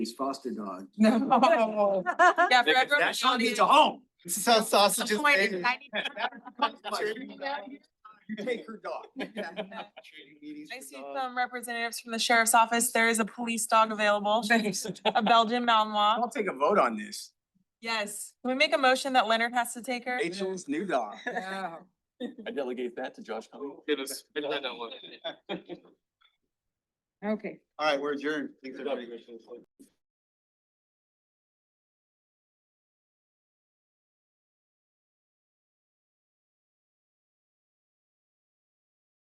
these foster uh, dogs. No. Because Yeah, forever. That Sean show needs needs a home. This is how sausages. Disappointed. I need- You take her dog. I see some representatives from the sheriff's office. There is a police dog available, a Belgian Malinois. I'll take a vote on this. Yes. Can we make a motion that Leonard has to take her? Rachel's new dog. I delegate that to Josh. Goodness, I didn't know what- Okay. All right, we're adjourned. Thanks, everybody.